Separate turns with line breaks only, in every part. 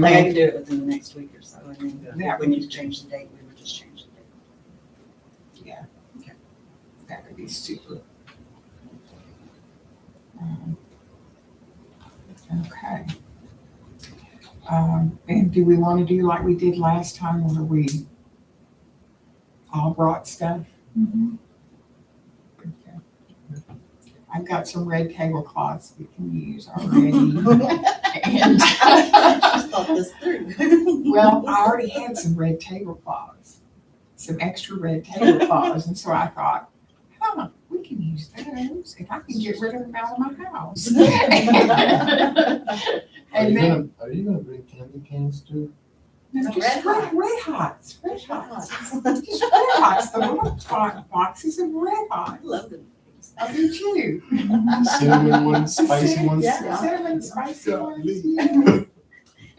Like I can do it within the next week or so, and then
Yeah.
if we need to change the date, we would just change the date.
Yeah. That would be super. Um, Okay. Um, and do we want to do like we did last time where we all brought stuff? Okay. I've got some red tablecloths we can use already. And-
Just thought this through.
Well, I already had some red tablecloths, some extra red tablecloths, and so I thought, huh, we can use those if I can get rid of them out of my house.
Are
And
you
then,
gonna, are you gonna bring candy cans too?
no,
Red
just red,
Hots.
red hots, red hots, just red hots, the little bo- boxes of red hots.
Love them.
I do too.
Cinnamon ones, spicy
Cinnamon-
ones?
yeah.
Cinnamon spicy
Yeah.
ones, yeah.
Because our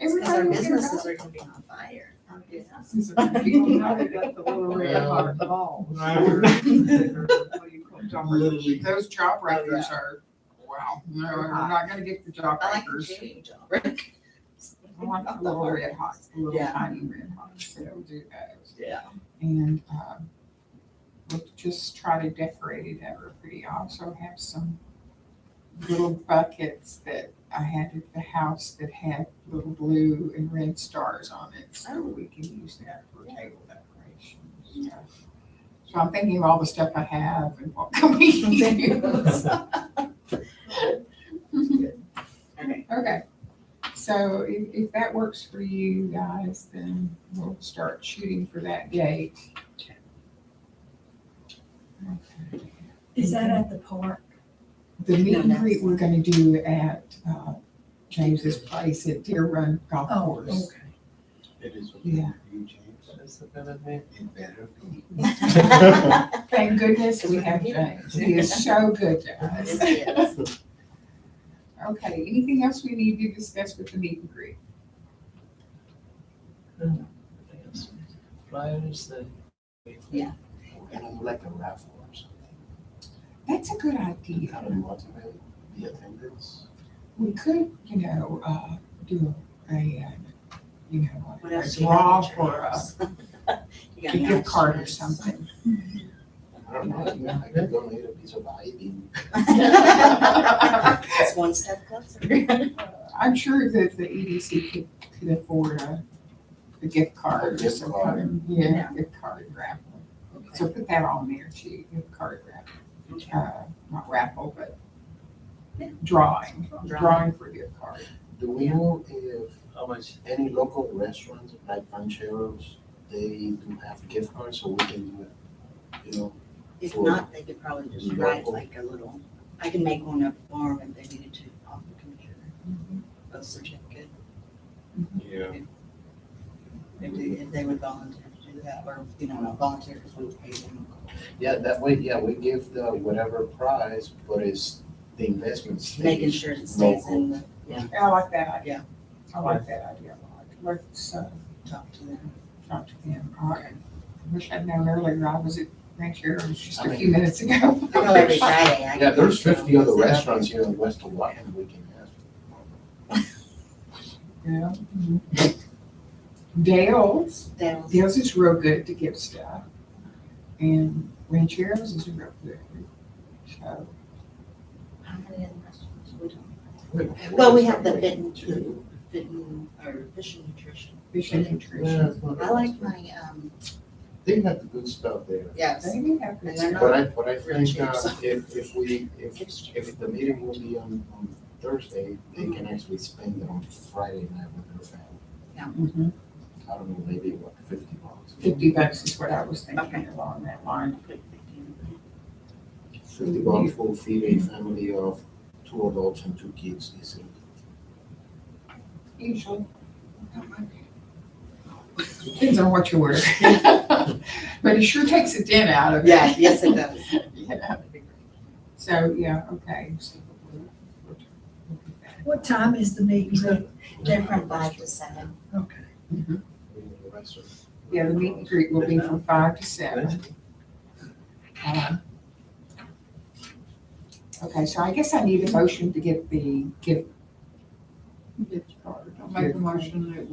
Everybody was gonna
businesses
go.
are gonna be on fire.
Businesses are gonna be on
Now
fire.
they got the little red hot balls.
I
Or-
would-
what do you call it?
Literally.
Those job breakers are, wow, no, we're not gonna get the job
I like the
breakers.
shooting job, right?
I want the little red hots, the little
Yeah.
tiny red hots, so we'll do those.
Yeah.
And, um, we'll just try to decorate it ever pretty. I also have some little buckets that I had at the house that had little blue and red stars on it, so we can use that for table decoration. and stuff. So I'm thinking of all the stuff I have and what can we use.
Okay.
Okay, so if, if that works for you guys, then we'll start shooting for that date. Okay.
Is that at the park?
The meet
No,
and
that's-
greet we're gonna do at, uh, James's place at Deer Run Golf Course.
It is. what
Yeah.
You James,
Is it gonna be?
it better be.
Thank goodness we have James, he is so good to us.
Yes, yes.
Okay, anything else we need to discuss with the meet and greet?
Flyers, the.
And I'm like a raffle or something.
That's a good
I
idea.
don't want to really be attendance.
We could, you know, uh, do a, uh, you know,
What
a
else do you
draw
have in
for
your
a
house? You got
a
any
gift card or
options?
something.
I don't know, you know, I could donate a piece of ivy.
It's one step closer.
I'm sure that the EDC could, could afford a, a gift card or
Gift
some
card.
kind of, yeah, gift card raffle. So put that on there too, gift card raffle,
Okay.
uh, not raffle, but
Yeah.
drawing,
Drawing.
drawing for gift card.
Do we know if
How much?
any local restaurants like Pancheros, they do have gift cards so we can do it? You know,
If
Or-
not, they could probably just write like a little, I can make one up for them if they needed to off the computer. Birth certificate,
Yeah.
if they, if they would volunteer to do that, or, you know, not volunteer because we would pay them.
Yeah, that way, yeah, we give the whatever prize, but it's the investment stays.
Making sure it stays in the, yeah,
I like that idea.
Yeah.
I like that idea a lot. Let's, uh,
talk to them.
talk to them. All right. I wish I'd known earlier. I was at Ranchero's just
I
a
mean-
few minutes ago.
I know every Friday I.
Yeah, there's
can-
fifty other restaurants here in West Hawaiian we can ask.
Yeah. Dale's.
That'll-
Dale's is real good to give stuff, and Rancheros is real good. So,
How many other restaurants? We don't.
for.
Well, we have the fit and, fit and, or fish and nutrition.
fish and
Yeah,
nutrition.
it's not-
I like my, um,
They have the good stuff there.
yes,
They do have good
And they're not-
stuff.
But I, but I
Real
think, uh,
chips.
if, if we, if
it's cheap.
If the meeting will be on, on Thursday, they can actually spend it on Friday night with their family.
Mhm.
I don't know, maybe what, fifty bucks?
Fifty bucks is what I was
Okay.
thinking along that line.
Fifty bucks will feed a family of two adults and two kids easily.
Usually. Depends on what you wear. But it sure takes a dent out of it.
Yeah, yes, it does.
Yeah. So, yeah, okay. So we'll- we'll- we'll do that.
What time is the meet and greet?
They're from five to seven.
Okay.
Yeah, the meet and greet will be from five to seven. Uh, Okay, so I guess I need a motion to get the gift. Gift card.
I'll make a motion that